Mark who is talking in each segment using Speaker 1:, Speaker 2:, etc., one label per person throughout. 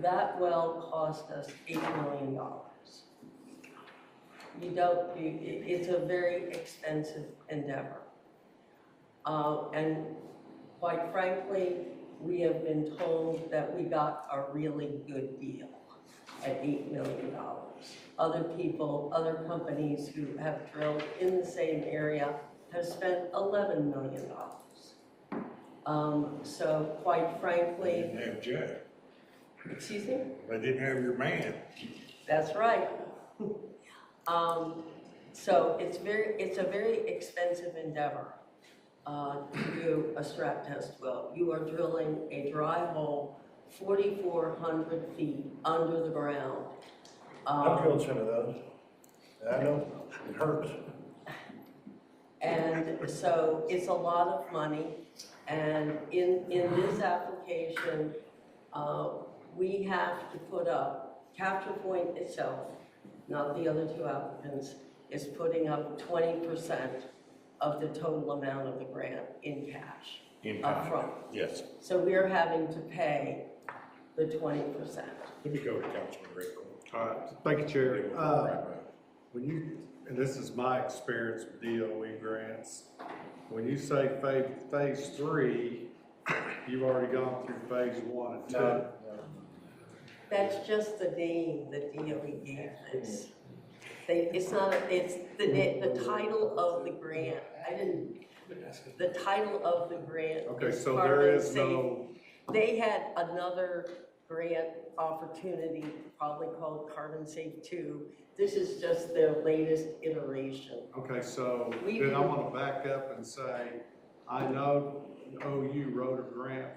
Speaker 1: that well cost us eight million dollars. You don't, you, i- it's a very expensive endeavor. Uh, and quite frankly, we have been told that we got a really good deal at eight million dollars. Other people, other companies who have drilled in the same area have spent eleven million dollars. Um, so quite
Speaker 2: They
Speaker 1: frankly,
Speaker 2: didn't have Jack,
Speaker 1: excuse me?
Speaker 2: they didn't have your man.
Speaker 1: That's right. Um, so it's very, it's a very expensive endeavor, uh, to do a strap test well. You are drilling a dry hole forty-four hundred feet under the ground.
Speaker 3: I've
Speaker 1: Um,
Speaker 3: drilled some of those. I know, it hurts.
Speaker 1: And so it's a lot of money. And in, in this application, uh, we have to put up, Capture Point itself, not the other two applicants, is putting up twenty percent of the total amount of the grant in cash upfront.
Speaker 2: Yes.
Speaker 1: So we're having to pay the twenty percent.
Speaker 2: Let me go to Councilman Rickles.
Speaker 4: All right, thank you, Chair. Uh, When you, and this is my experience with DOE grants, when you say phase, phase three, you've already gone through phase one and two.
Speaker 1: That's just the name that DOE gave this. They, it's not, a- it's the, na- the title of the grant, I didn't, the title of the grant.
Speaker 4: Okay,
Speaker 1: is
Speaker 4: so
Speaker 1: part
Speaker 4: there
Speaker 1: of
Speaker 4: is
Speaker 1: the-
Speaker 4: no,
Speaker 1: They had another grant opportunity, probably called Carbon Safe Two. This is just their latest iteration.
Speaker 4: okay, so
Speaker 1: We
Speaker 4: then I
Speaker 1: do-
Speaker 4: want to back up and say, I know OU wrote a grant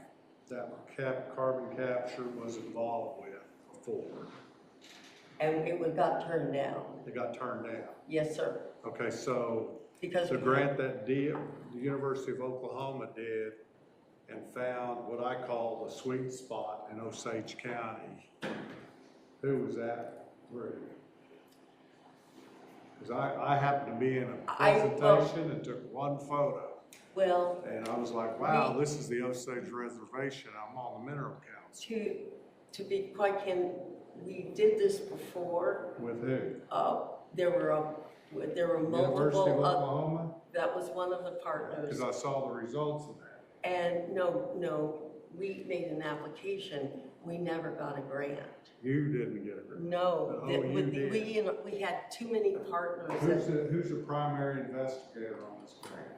Speaker 4: that cap, carbon capture was involved with before.
Speaker 1: And it would got turned down,
Speaker 4: It got turned down.
Speaker 1: yes, sir,
Speaker 4: Okay, so
Speaker 1: because.
Speaker 4: The grant that did, the University of Oklahoma did and found what I call the sweet spot in Osage County. Who was that through? Because I, I happened to be in a
Speaker 1: I- well-
Speaker 4: presentation and took one photo.
Speaker 1: Well,
Speaker 4: And I was like, wow,
Speaker 1: We-
Speaker 4: this is the Osage Reservation. I'm on the mineral council.
Speaker 1: to, to be quite candid, we did this before.
Speaker 4: With who?
Speaker 1: Uh, there were, a- there were
Speaker 4: University of
Speaker 1: multiple, uh, oth-
Speaker 4: Oklahoma?
Speaker 1: that was one of the partners.
Speaker 4: Because I saw the results of that.
Speaker 1: And no, no, we made an application, we never got a grant.
Speaker 4: You didn't get a grant.
Speaker 1: No,
Speaker 4: Oh,
Speaker 1: that
Speaker 4: you
Speaker 1: would-
Speaker 4: did.
Speaker 1: we, we had too many partners
Speaker 4: Who's
Speaker 1: that-
Speaker 4: the, who's the primary investigator on this grant?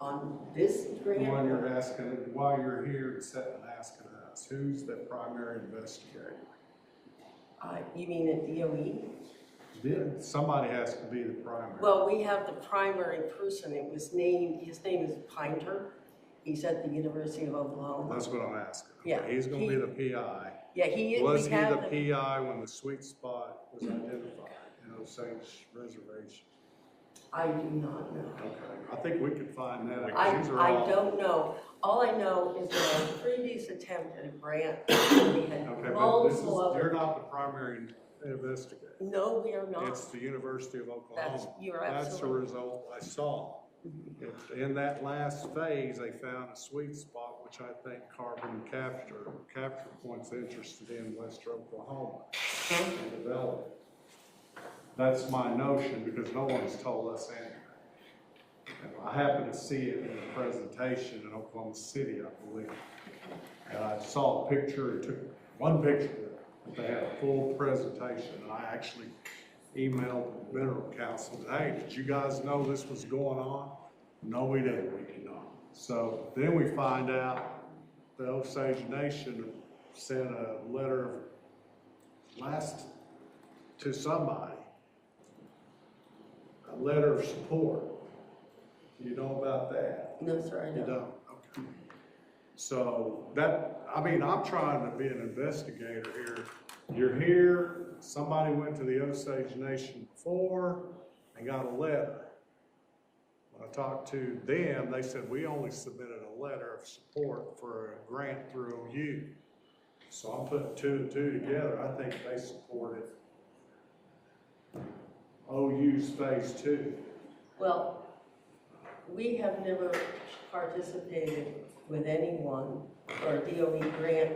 Speaker 1: on this
Speaker 4: The one
Speaker 1: grant.
Speaker 4: you're asking, why you're here and sitting and asking us, who's the primary investigator?
Speaker 1: Uh, You mean at DOE?
Speaker 4: Did, somebody has to be the primary.
Speaker 1: Well, we have the primary person, it was named, his name is Pinter. He's at the University of Oklahoma.
Speaker 4: That's what I'm asking.
Speaker 1: Yeah,
Speaker 4: He's gonna
Speaker 1: he-
Speaker 4: be the PI.
Speaker 1: Yeah, he, we
Speaker 4: Was he
Speaker 1: have the-
Speaker 4: the PI when the sweet spot was identified in Osage Reservation?
Speaker 1: I do not know.
Speaker 4: Okay, I think we could find that out.
Speaker 1: I,
Speaker 4: These are
Speaker 1: I
Speaker 4: all-
Speaker 1: don't know. All I know is that our previous attempt at a grant, we
Speaker 4: Okay,
Speaker 1: had
Speaker 4: but this is,
Speaker 1: multiple other.
Speaker 4: you're not the primary investigator.
Speaker 1: No, we are not.
Speaker 4: It's the University of Oklahoma.
Speaker 1: That's, you're
Speaker 4: That's the
Speaker 1: absolutely, Mm-hmm.
Speaker 4: result I saw. In that last phase, they found a sweet spot, which I think carbon capture, capture points interested in Western Oklahoma and develop. it. That's my notion, because no one's told us anything. And I happened to see it in a presentation in Oklahoma City, I believe. And I saw a picture, and took one picture, but they had a full presentation, and I actually emailed the mineral council, hey, did you guys know this was going on? No, we didn't, we did not. So then we find out the Osage Nation sent a letter of last, to somebody, a letter of support. You know about that?
Speaker 1: no, sir, I don't.
Speaker 4: You don't, okay. So that, I mean, I'm trying to be an investigator here. You're here, somebody went to the Osage Nation before and got a letter. When I talked to them, they said, we only submitted a letter of support for a grant through OU. So I'm putting two and two together, I think they supported OU's phase two.
Speaker 1: Well, we have never participated with anyone or a DOE grant